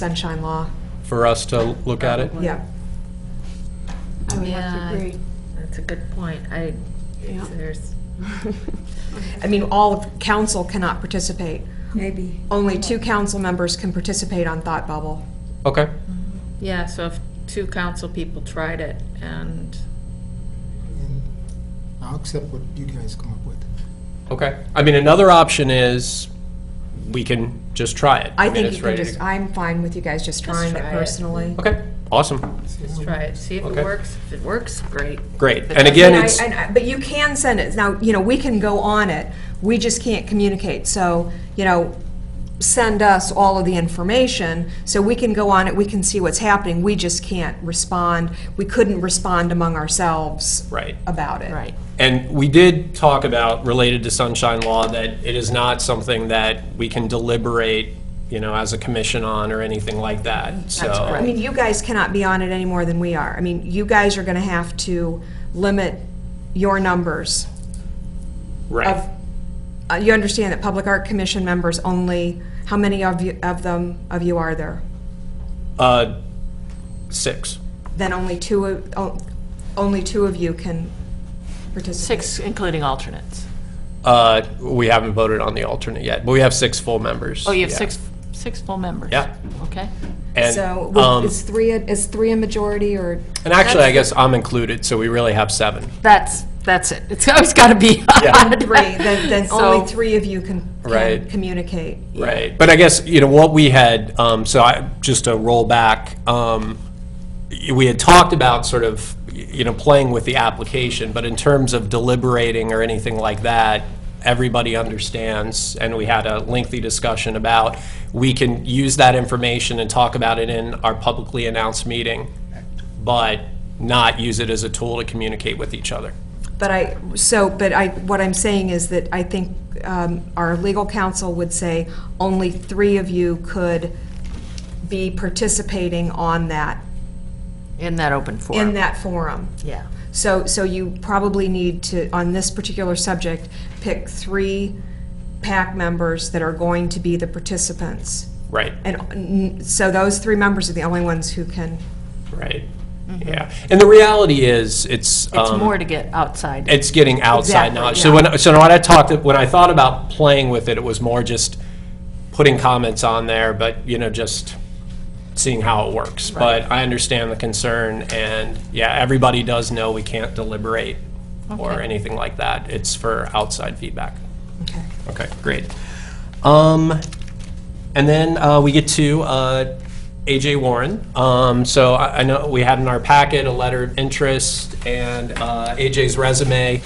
sunshine law. for us to look at it? Yeah. I would have Yeah. to agree. That's a good point. I, Yeah. there's, I mean, all of council cannot participate. Maybe. Only two council members can participate on Thought Bubble. Okay, yeah, so if two council people tried it and, and I'll accept what you guys come up with. okay. I mean, another option is we can just try it. I mean, think it's you can ready to- just, I'm fine with you guys just Let's trying it try it. personally. Okay, awesome, just try it, see if Okay. it works. If it works, great. great. But And that's- again, I- it's, and I- But you can send it. Now, you know, we can go on it. We just can't communicate. So, you know, send us all of the information so we can go on it. We can see what's happening. We just can't respond. We couldn't respond among ourselves. Right. About it. and we did talk about, related to sunshine law, that it is not something that we can deliberate, you know, as a commission on or anything like that, so. I mean, you guys cannot be on it any more than we are. I mean, you guys are going to have to limit your numbers of, Right, uh, you understand that Public Art Commission members only, how many of you, of them, of you are there? uh, six. Then only two, of- o- only two of you can participate. Six, including alternates. Uh, we haven't voted on the alternate yet, but we have six full members. Oh, you have Yeah. six, six full members? Yeah. Okay. And, So um, would- is three, a- is three a majority or? And actually, I guess I'm included, so we really have seven. That's, that's it. It's always got to be. Yeah. Three, then, then So- only three of you can, can Right. communicate. Right. But I guess, you know, what we had, um, so I, just to roll back, um, y- we had talked about sort of, y- you know, playing with the application, but in terms of deliberating or anything like that, everybody understands, and we had a lengthy discussion about, we can use that information and talk about it in our publicly announced meeting, but not use it as a tool to communicate with each other. But I, so, but I, what I'm saying is that I think um, our legal counsel would say only three of you could be participating on that, In that open forum. in that forum. Yeah. So, so you probably need to, on this particular subject, pick three PAC members that are going to be the participants. Right. And mm, so those three members are the only ones who can, Right. Yeah. And the reality is, Mm-hmm. it's. It's um, more to get outside. It's getting outside Exactly, knowledge. So when, so when I talked, when I thought about playing with it, it was more just putting comments on there, but, you know, just seeing how it works. But I understand the concern, and, yeah, everybody does know we can't deliberate or Okay. anything like that. It's for outside feedback. okay. Okay, great. Um, and then uh, we get to uh, AJ Warren. Um, so I, I know we had in our packet a letter of interest and uh, AJ's resume.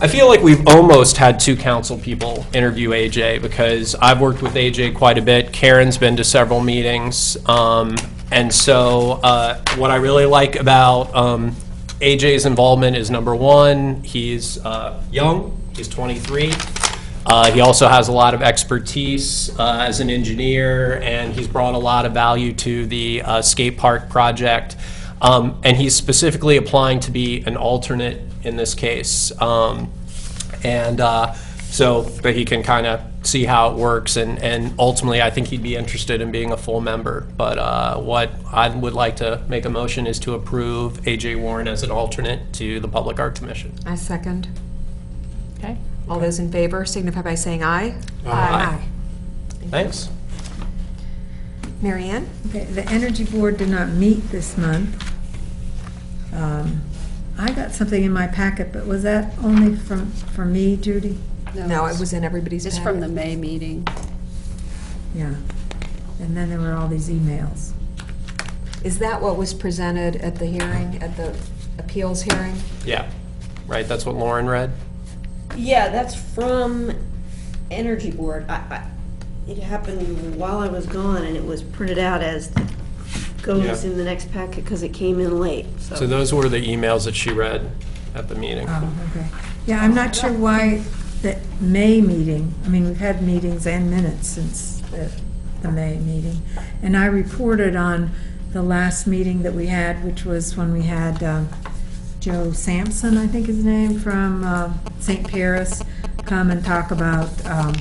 I feel like we've almost had two council people interview AJ because I've worked with AJ quite a bit. Karen's been to several meetings. Um, and so uh, what I really like about um, AJ's involvement is number one, he's uh, young, he's 23. Uh, he also has a lot of expertise uh, as an engineer, and he's brought a lot of value to the uh, skate park project. Um, and he's specifically applying to be an alternate in this case. Um, and uh, so that he can kind of see how it works. And, and ultimately, I think he'd be interested in being a full member. But uh, what I would like to make a motion is to approve AJ Warren as an alternate to the Public Art Commission. I second. Okay. All those in favor signify by saying aye. Aye. Thanks. Mary Ann? Okay, the Energy Board did not meet this month. Um, I got something in my packet, but was that only from, for me, Judy? No, it was in everybody's It's from the packet. May meeting. Yeah. And then there were all these emails. Is that what was presented at the hearing, at the appeals hearing? Yeah. Right? That's what Lauren read? Yeah, that's from Energy Board. I, I, it happened while I was gone, and it was printed out as goes Yeah. in the next packet, because it came in late, So those were the emails that she read at the meeting. Oh, okay. Yeah, I'm not sure why the May meeting, I mean, we've had meetings and minutes since the, the May meeting. And I reported on the last meeting that we had, which was when we had um, Joe Sampson, I think his name, from um, St. Paris, come and talk about um,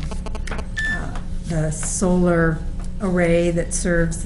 uh, the solar array that serves